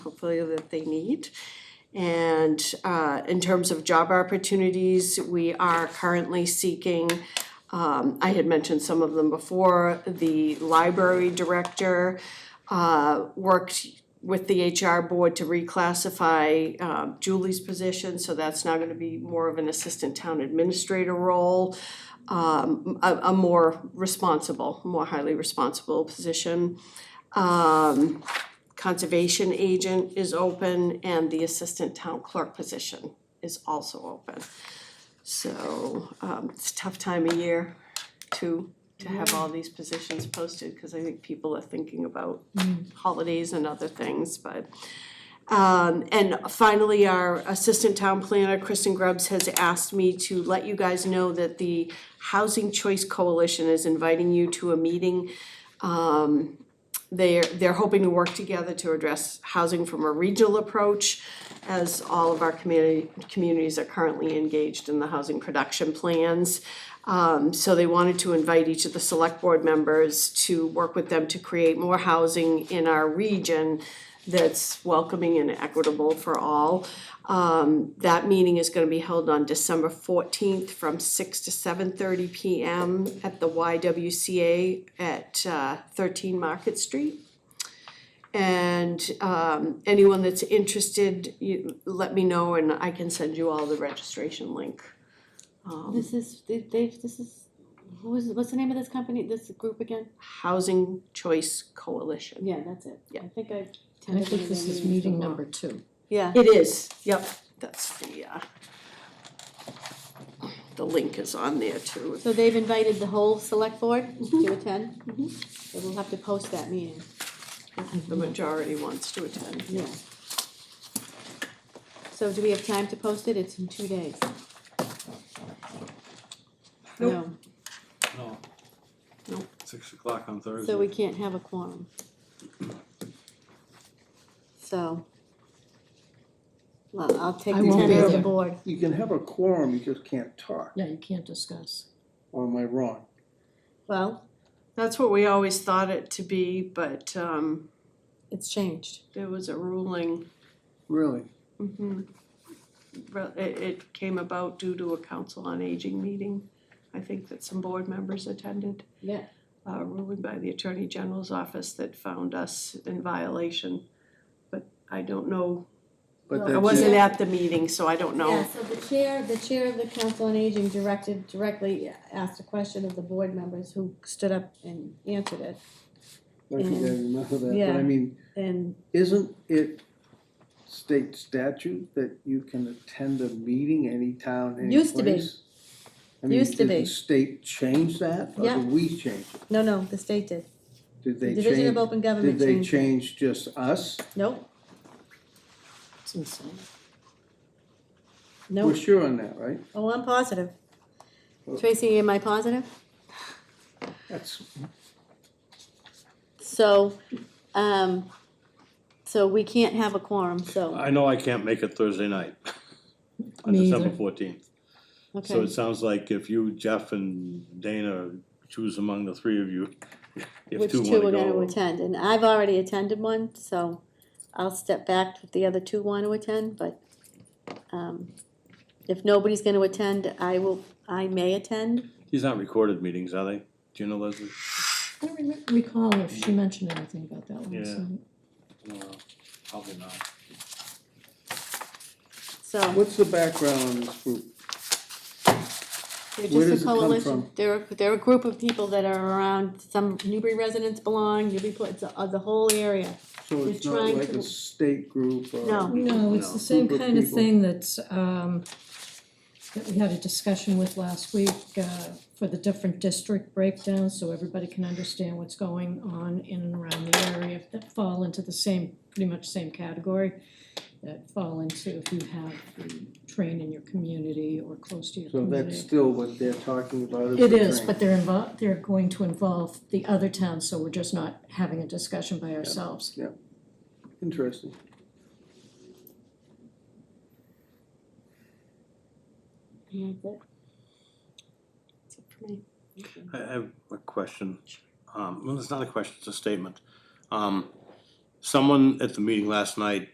portfolio that they need. And uh, in terms of job opportunities, we are currently seeking, um, I had mentioned some of them before, the library director uh, worked with the HR board to reclassify um, Julie's position, so that's now gonna be more of an assistant town administrator role, um, a, a more responsible, more highly responsible position. Um, conservation agent is open and the assistant town clerk position is also open. So, um, it's a tough time of year to, to have all these positions posted, cause I think people are thinking about holidays and other things, but. Um, and finally, our assistant town planner, Kristen Grubbs, has asked me to let you guys know that the Housing Choice Coalition is inviting you to a meeting they're, they're hoping to work together to address housing from a regional approach as all of our community, communities are currently engaged in the housing production plans. Um, so they wanted to invite each of the select board members to work with them to create more housing in our region that's welcoming and equitable for all. Um, that meeting is gonna be held on December fourteenth from six to seven thirty P M at the Y W C A at uh, thirteen Market Street. And um, anyone that's interested, you let me know and I can send you all the registration link. Um, This is they- they've. This is who is what's the name of this company? This group again? Housing Choice Coalition. Yeah, that's it. Yeah. I think I. I think this is meeting number two. Yeah. It is, yep, that's the uh, the link is on there too. So they've invited the whole select board Mm-hmm. to attend. So we'll have to post that meeting. The majority wants to attend. Yeah. So do we have time to post it? It's in two days. No, No. Nope. Six o'clock on Thursday. so we can't have a quorum. So. Well, I'll take I the won't be tenor of the there. board. You can have a quorum, you just can't talk, Yeah, you can't discuss. or am I wrong? Well, That's what we always thought it to be, but um, it's changed. there was a ruling. mm-hmm, Really? Re- It, it came about due to a council on aging meeting, I think that some board members attended. Yeah. Uh, ruling by the Attorney General's office that found us in violation, but I don't know. But I that's wasn't it, at the meeting, so I don't know. Yeah, so the chair, the chair of the council on aging directed, directly asked a question of the board members who stood up and answered it. I think I remember that, but Yeah. I mean, And isn't it state statute that you can attend a meeting any town, any place? Used to be. I mean, Used to did be. the state change that, or Yeah. did we change it? no, no, the state did. Did The they Division of change, Open did Government they changed. it. change just us? Nope, It's insane. We're nope. sure on that, right? Oh, I'm positive. Well- Tracy, am I positive? That's, So, um, so we can't have a quorum, so, I know I can't make it Thursday night. On Me December either. fourteenth. So okay. it sounds like if you, Jeff and Dana choose among the three of you, if Which two two are wanna gonna go. attend, and I've already attended one, so I'll step back if the other two want to attend, but, um, if nobody's gonna attend, I will, I may attend. These aren't recorded meetings, are they? Do you know Leslie? I don't remem- recall if she mentioned anything about that one, Yeah. so. No, Probably not. So, what's the background on this group? they're just where does a it come coalition, from? they're, they're a group of people that are around, some Newbury residents belong, Newbury, pla- it's, uh, the whole area. So They're it's not trying like to- a state group or? No. No, it's No. the same Group of kind of people. thing that's, um, that we had a discussion with last week, uh, for the different district breakdowns, so everybody can understand what's going on in and around the area that fall into the same, pretty much same category, that fall into if you have the train in your community or close to your So community. that's still what they're talking about? It the is, drain. but they're involved, they're going to involve the other towns, so we're just not having a discussion by ourselves. Interesting. And that's it. I I have a question. Um, well, it's not a question, it's a statement. Um, someone at the meeting last night